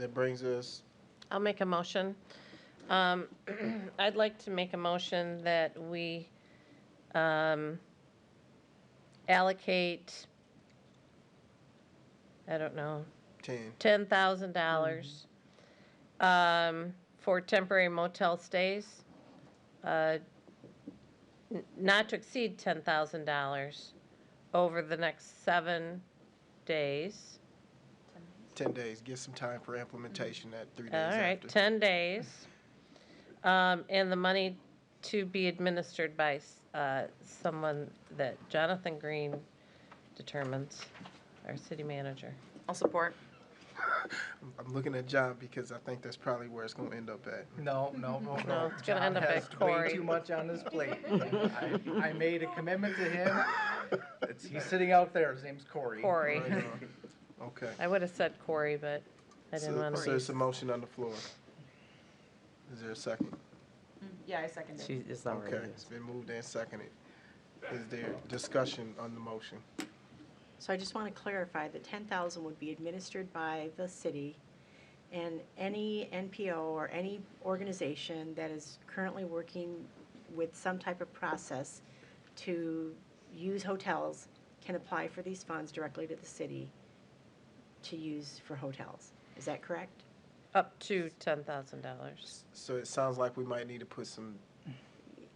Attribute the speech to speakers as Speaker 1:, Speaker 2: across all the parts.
Speaker 1: That brings us,
Speaker 2: I'll make a motion. Um, I'd like to make a motion that we um, allocate, I don't know,
Speaker 1: ten.
Speaker 2: $10,000 um, for temporary motel stays, uh, n- not to exceed $10,000 over the next seven days.
Speaker 1: Ten days, get some time for implementation that three days
Speaker 2: All right,
Speaker 1: after.
Speaker 2: 10 days. Um, And the money to be administered by s- uh, someone that Jonathan Green determines, our city manager.
Speaker 3: I'll support.
Speaker 1: I'm- I'm looking at John because I think that's probably where it's gonna end up at.
Speaker 4: No, no, no, no.
Speaker 2: No, it's gonna end
Speaker 4: John
Speaker 2: up
Speaker 4: has
Speaker 2: at Cory.
Speaker 4: Way too much on his plate. I, I made a commitment to him. It's, he's sitting out there. His name's Corey.
Speaker 2: Corey.
Speaker 1: Right on. Okay.
Speaker 2: I would have said Corey, but I didn't
Speaker 1: So
Speaker 2: want
Speaker 1: so it's
Speaker 2: to.
Speaker 1: a motion on the floor. Is there a second?
Speaker 3: Yeah, I second it.
Speaker 5: She, it's not
Speaker 1: Okay,
Speaker 5: ready.
Speaker 1: it's been moved and seconded. Is there discussion on the motion?
Speaker 6: So I just want to clarify that 10,000 would be administered by the city, and any NPO or any organization that is currently working with some type of process to use hotels can apply for these funds directly to the city to use for hotels. Is that correct?
Speaker 2: Up to $10,000.
Speaker 1: So it sounds like we might need to put some.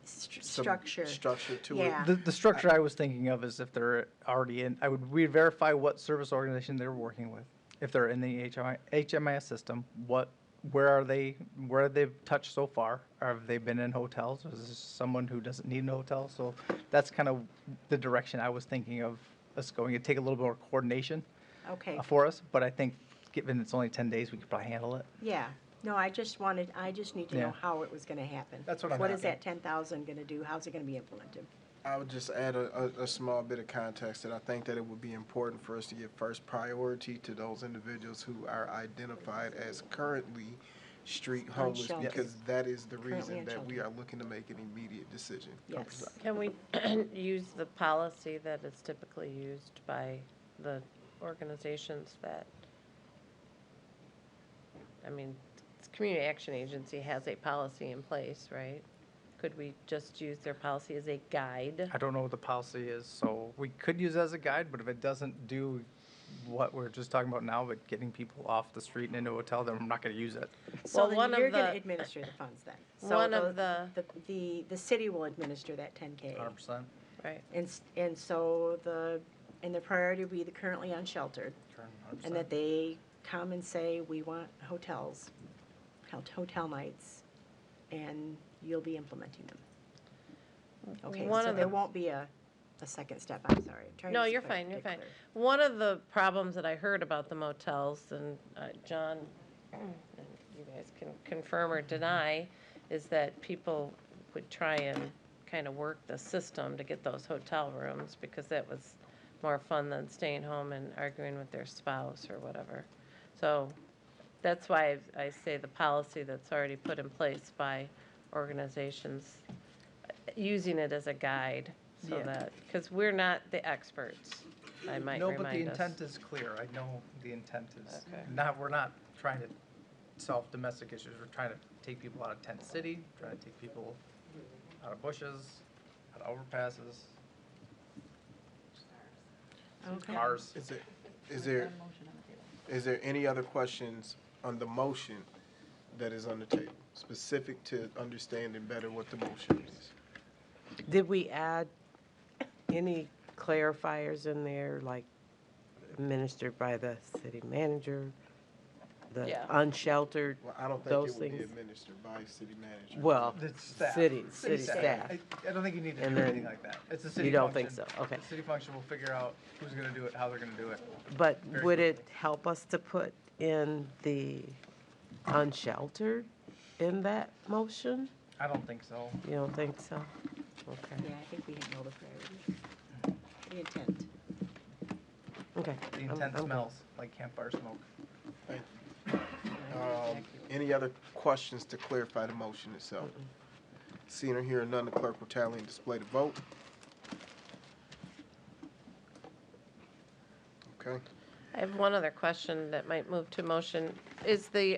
Speaker 6: Stru-
Speaker 1: some
Speaker 6: Structure.
Speaker 1: Structure to it.
Speaker 6: Yeah.
Speaker 4: The, the structure I was thinking of is if they're already in, I would, we verify what service organization they're working with. If they're in the HMI, HMIS system, what, where are they, where have they touched so far? Have they been in hotels? Is this someone who doesn't need an hotel? So that's kind of the direction I was thinking of us going. It'd take a little more coordination
Speaker 6: Okay.
Speaker 4: uh, for us, but I think given it's only ten days, we could probably handle it.
Speaker 6: Yeah, no, I just wanted, I just need to
Speaker 4: Yeah.
Speaker 6: know how it was gonna happen.
Speaker 4: That's what I'm
Speaker 6: What is
Speaker 4: asking.
Speaker 6: that ten thousand gonna do? How's it gonna be implemented?
Speaker 1: I would just add a, a, a small bit of context that I think that it would be important for us to give first priority to those individuals who are identified as currently street homeless,
Speaker 6: shelter.
Speaker 1: because that is the
Speaker 6: Currently
Speaker 1: reason
Speaker 6: on
Speaker 1: that we are looking to make an immediate decision.
Speaker 6: Yes,
Speaker 2: Can we use the policy that is typically used by the organizations that, I mean, it's Community Action Agency has a policy in place, right? Could we just use their policy as a guide?
Speaker 4: I don't know what the policy is, so we could use it as a guide, but if it doesn't do what we're just talking about now, but getting people off the street and into a hotel, then we're not gonna use it.
Speaker 6: so
Speaker 2: Well,
Speaker 6: then
Speaker 2: one of
Speaker 6: you're gonna
Speaker 2: the-
Speaker 6: administer the funds then. So
Speaker 2: One of
Speaker 6: The, the, the city will administer that ten K.
Speaker 4: Hundred percent.
Speaker 2: Right.
Speaker 6: And, s- and so the, and the priority will be the currently unsheltered, and that they come and say, we want hotels, hot- hotel nights, and you'll be implementing them. Okay,
Speaker 2: One
Speaker 6: so
Speaker 2: of
Speaker 6: there
Speaker 2: the-
Speaker 6: won't be a, a second step, I'm sorry. I'm trying
Speaker 2: No,
Speaker 6: to
Speaker 2: you're
Speaker 6: spe-
Speaker 2: fine, you're
Speaker 6: be
Speaker 2: fine.
Speaker 6: clear.
Speaker 2: One of the problems that I heard about the motels, and uh, John, and you guys can confirm or deny, is that people would try and kind of work the system to get those hotel rooms, because that was more fun than staying home and arguing with their spouse or whatever. So that's why I I say the policy that's already put in place by organizations, uh, using it as a guide, so
Speaker 4: Yeah.
Speaker 2: that, because we're not the experts, I might
Speaker 4: No, but the
Speaker 2: remind us.
Speaker 4: intent is clear. I know the intent is
Speaker 2: Okay.
Speaker 4: not, we're not trying to solve domestic issues. We're trying to take people out of tent city, trying to take people out of bushes, out of overpasses,
Speaker 6: Okay.
Speaker 4: cars.
Speaker 1: Is there, is there, is there any other questions on the motion that is on the table, specific to understanding better what the motion is?
Speaker 5: Did we add any clarifiers in there, like administered by the city manager? The
Speaker 2: Yeah.
Speaker 5: unsheltered,
Speaker 1: Well, I don't think
Speaker 5: Those
Speaker 1: it would be
Speaker 5: things-
Speaker 1: administered by city manager.
Speaker 5: well,
Speaker 4: The staff.
Speaker 5: city, city staff.
Speaker 4: I- I don't think you need to
Speaker 5: And
Speaker 4: do anything
Speaker 5: then
Speaker 4: like that. It's a city function.
Speaker 5: you don't think so, okay.
Speaker 4: The city function will figure out who's gonna do it, how they're gonna do it.
Speaker 5: But
Speaker 4: Very
Speaker 5: would it help us to put in the unsheltered in that motion?
Speaker 4: I don't think so.
Speaker 5: You don't think so? Okay,
Speaker 6: Yeah, I think we handle the priority, the intent.
Speaker 5: okay.
Speaker 4: The
Speaker 5: I'm-
Speaker 4: intent
Speaker 5: I'm-
Speaker 4: smells like campfire smoke.
Speaker 1: Thank you. Um, Any other questions to clarify the motion itself? Seeing or hearing none, the clerk will tally and display the vote. Okay,
Speaker 2: I have one other question that might move to motion. Is the